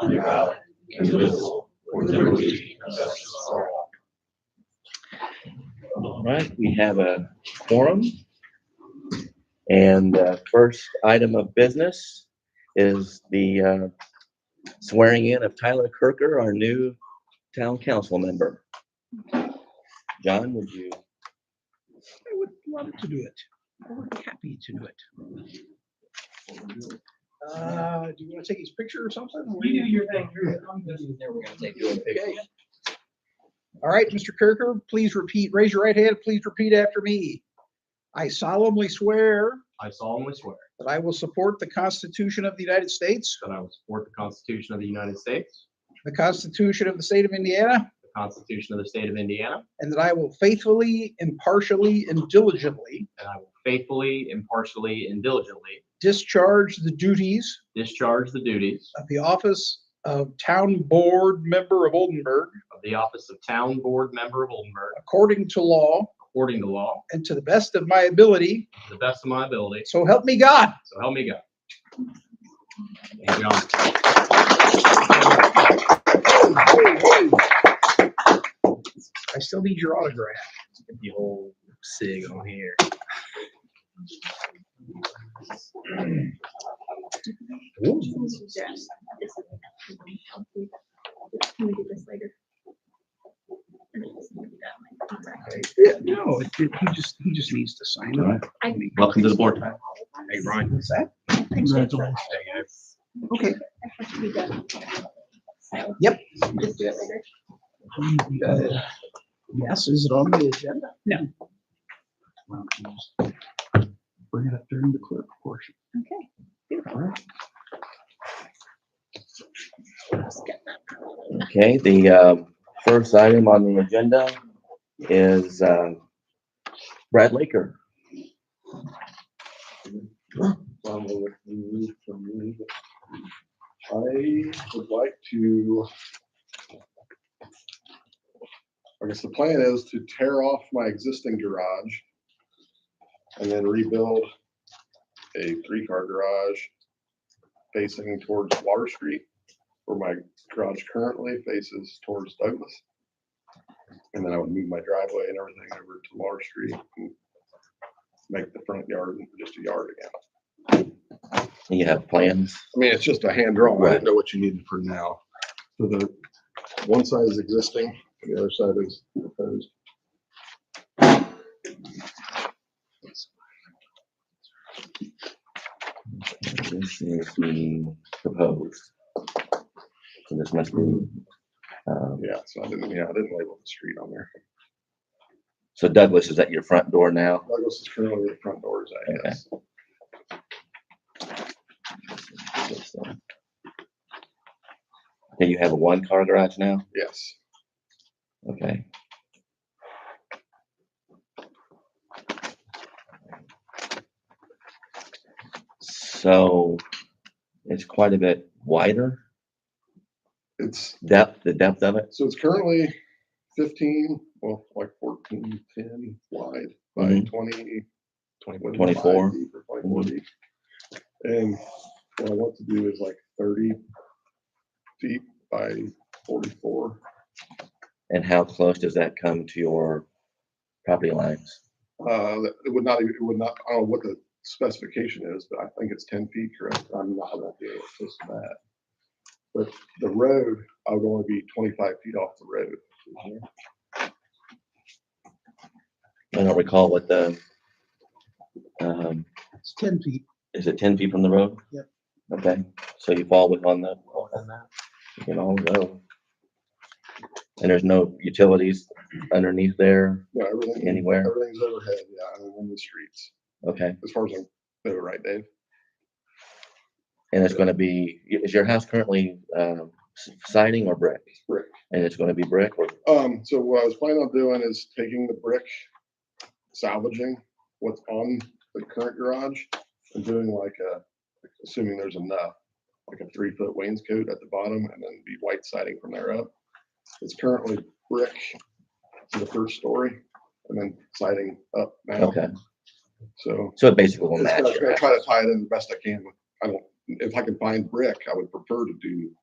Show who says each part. Speaker 1: under God, indivisible, with liberty and justice for all.
Speaker 2: All right, we have a quorum. And uh, first item of business is the uh, swearing in of Tyler Kirker, our new town council member. John, would you?
Speaker 3: I would love to do it. I would be happy to do it. Uh, do you want to take his picture or something?
Speaker 4: You do your thing. You're- I'm good.
Speaker 3: Okay. All right, Mr. Kirker, please repeat, raise your right hand, please repeat after me. I solemnly swear
Speaker 5: I solemnly swear
Speaker 3: that I will support the Constitution of the United States,
Speaker 5: that I will support the Constitution of the United States,
Speaker 3: the Constitution of the State of Indiana,
Speaker 5: the Constitution of the State of Indiana,
Speaker 3: and that I will faithfully, impartially, and diligently
Speaker 5: and I will faithfully, impartially, and diligently
Speaker 3: discharge the duties
Speaker 5: discharge the duties
Speaker 3: of the office of Town Board Member of Oldenburg
Speaker 5: of the office of Town Board Member of Oldenburg
Speaker 3: according to law
Speaker 5: according to law,
Speaker 3: and to the best of my ability.
Speaker 5: to the best of my ability,
Speaker 3: So help me God.
Speaker 5: so help me God. Thank you, Your
Speaker 3: I
Speaker 5: Honor.
Speaker 3: still need your autograph.
Speaker 4: The whole sig on here.
Speaker 6: Can we do this later?
Speaker 3: Yeah.
Speaker 4: No, it, it, he just, he just needs to sign
Speaker 2: All
Speaker 4: it.
Speaker 6: I-
Speaker 2: Welcome to the board.
Speaker 4: Hey, Ryan.
Speaker 3: What's that? Okay. Yep.
Speaker 6: Just do it later.
Speaker 3: Uh, Yes, is it on the agenda?
Speaker 4: No.
Speaker 3: Bring it up during the clerk portion.
Speaker 6: Okay.
Speaker 2: Okay, the uh, first item on the agenda is uh, Brad Laker.
Speaker 7: Donald, if you move from me. I would like to. I guess the plan is to tear off my existing garage and then rebuild a three-car garage facing towards Water Street, where my garage currently faces towards Douglas. And then I would move my driveway and everything over to Water Street and make the front yard just a yard again.
Speaker 2: You have plans?
Speaker 7: I mean, it's just a hand drawing. I
Speaker 2: Right.
Speaker 7: didn't know what you needed for now. So the, one side is existing, the other side is proposed.
Speaker 2: This is the proposed. So this must be, um,
Speaker 7: Yeah, so I didn't, yeah, I didn't label the street on there.
Speaker 2: So Douglas is at your front door now?
Speaker 7: Douglas is currently the front doors, I guess.
Speaker 2: Okay, you have a one-car garage now?
Speaker 7: Yes.
Speaker 2: Okay. So it's quite a bit wider,
Speaker 7: It's,
Speaker 2: depth, the depth of it?
Speaker 7: so it's currently fifteen, well, like 14, 10 wide by
Speaker 2: Mhm.
Speaker 7: twenty. Mm-hmm. Twenty-four.
Speaker 2: 24.
Speaker 7: Twenty-four deep. And what I want to do is like thirty feet by forty-four.
Speaker 2: And how close does that come to your property lines?
Speaker 7: Uh, that- it would not, even- it would not, I don't know what the specification is, but I think it's ten feet, correct? I'm not, I'm not doing it close to that. But the road, I would only be twenty-five feet off the road.
Speaker 2: I don't recall what the, um,
Speaker 3: It's ten feet.
Speaker 2: Is it ten feet from the road?
Speaker 3: Yep.
Speaker 2: Okay, so you fall within the, you can all go. And there's no utilities underneath there,
Speaker 7: No, everything.
Speaker 2: Anywhere?
Speaker 7: Everything's overhead, yeah, I'm on the streets,
Speaker 2: okay?
Speaker 7: as far as I know, right, Dave?
Speaker 2: And it's gonna be, i- is your house currently, um, s- siding or brick?
Speaker 7: Brick.
Speaker 2: And it's gonna be brick or,
Speaker 7: Um, so what I was planning on doing is taking the brick, salvaging what's on the current garage and doing like a, assuming there's enough, like a three foot wainscot at the bottom and then be white siding from there up. It's currently brick to the first story and then siding up now.
Speaker 2: okay,
Speaker 7: So
Speaker 2: so it basically will
Speaker 7: it's
Speaker 2: match
Speaker 7: gonna-
Speaker 2: your
Speaker 7: gonna try to
Speaker 2: house.
Speaker 7: tie it in the best I can. with- I don't, if I can find brick, I would prefer to do